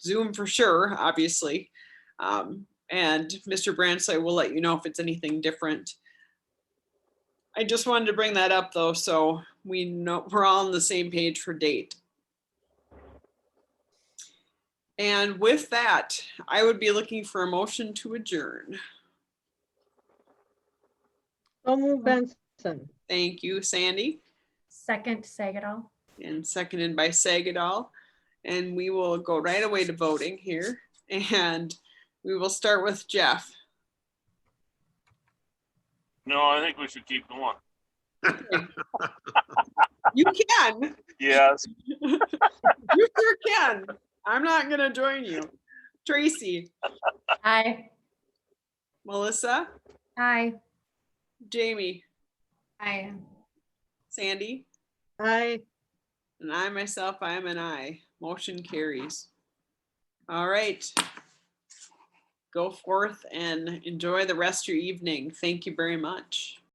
Zoom for sure, obviously. Um, and Mr. Bransley will let you know if it's anything different. I just wanted to bring that up though, so we know, we're all on the same page for date. And with that, I would be looking for a motion to adjourn. So move Benson. Thank you, Sandy, Second, Sagatol. and seconded by Sagadol. And we will go right away to voting here, and we will start with Jeff. No, I think we should keep going. You can, Yes. you sure can. I'm not gonna join you. Tracy, Aye. Melissa, Aye. Jamie, Aye. Sandy, Aye. and I myself, I am an I. Motion carries. All right. Go forth and enjoy the rest of your evening. Thank you very much.